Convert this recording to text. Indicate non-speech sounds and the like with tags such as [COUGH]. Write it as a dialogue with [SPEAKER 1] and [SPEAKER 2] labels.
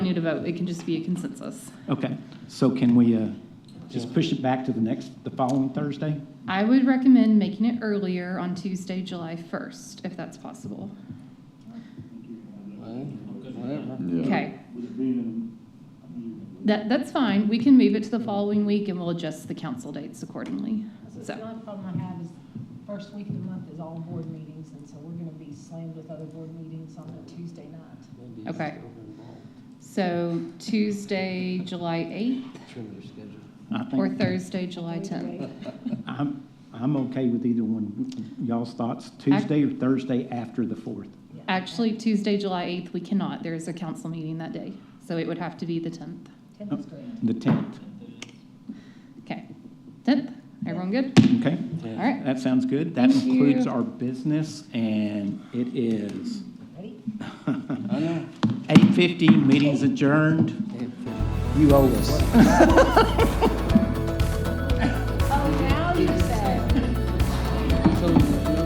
[SPEAKER 1] to vote. It can just be a consensus.
[SPEAKER 2] Okay, so can we uh, just push it back to the next, the following Thursday?
[SPEAKER 1] I would recommend making it earlier on Tuesday, July 1st, if that's possible.
[SPEAKER 3] Well, Whatever.
[SPEAKER 4] Yeah.
[SPEAKER 1] Okay,
[SPEAKER 5] Would it be in, I mean,
[SPEAKER 1] that, that's fine. We can move it to the following week and we'll adjust the council dates accordingly.
[SPEAKER 6] So
[SPEAKER 1] So-
[SPEAKER 6] The only problem I have is first week of the month is all board meetings, and so we're gonna be slammed with other board meetings on a Tuesday night.
[SPEAKER 3] Maybe it's
[SPEAKER 1] Okay.
[SPEAKER 3] still involved.
[SPEAKER 1] So Tuesday, July 8th
[SPEAKER 3] Trim your schedule.
[SPEAKER 2] I
[SPEAKER 1] or
[SPEAKER 2] think,
[SPEAKER 1] Thursday, July 10th?
[SPEAKER 2] I'm, I'm okay with either one. Y'all's thoughts, Tuesday or Thursday after the 4th?
[SPEAKER 6] Yeah.
[SPEAKER 1] Actually, Tuesday, July 8th, we cannot. There is a council meeting that day, so it would have to be the 10th.
[SPEAKER 6] Tenth is great.
[SPEAKER 2] The 10th,
[SPEAKER 1] Okay, 10th, everyone good?
[SPEAKER 2] okay?
[SPEAKER 1] All right,
[SPEAKER 2] That sounds good. That
[SPEAKER 1] Thank
[SPEAKER 2] includes
[SPEAKER 1] you.
[SPEAKER 2] our business, and it is
[SPEAKER 6] Ready?
[SPEAKER 3] I know.
[SPEAKER 2] 8:50, meeting's adjourned.
[SPEAKER 3] It-
[SPEAKER 2] You owe us.
[SPEAKER 1] [LAUGHS]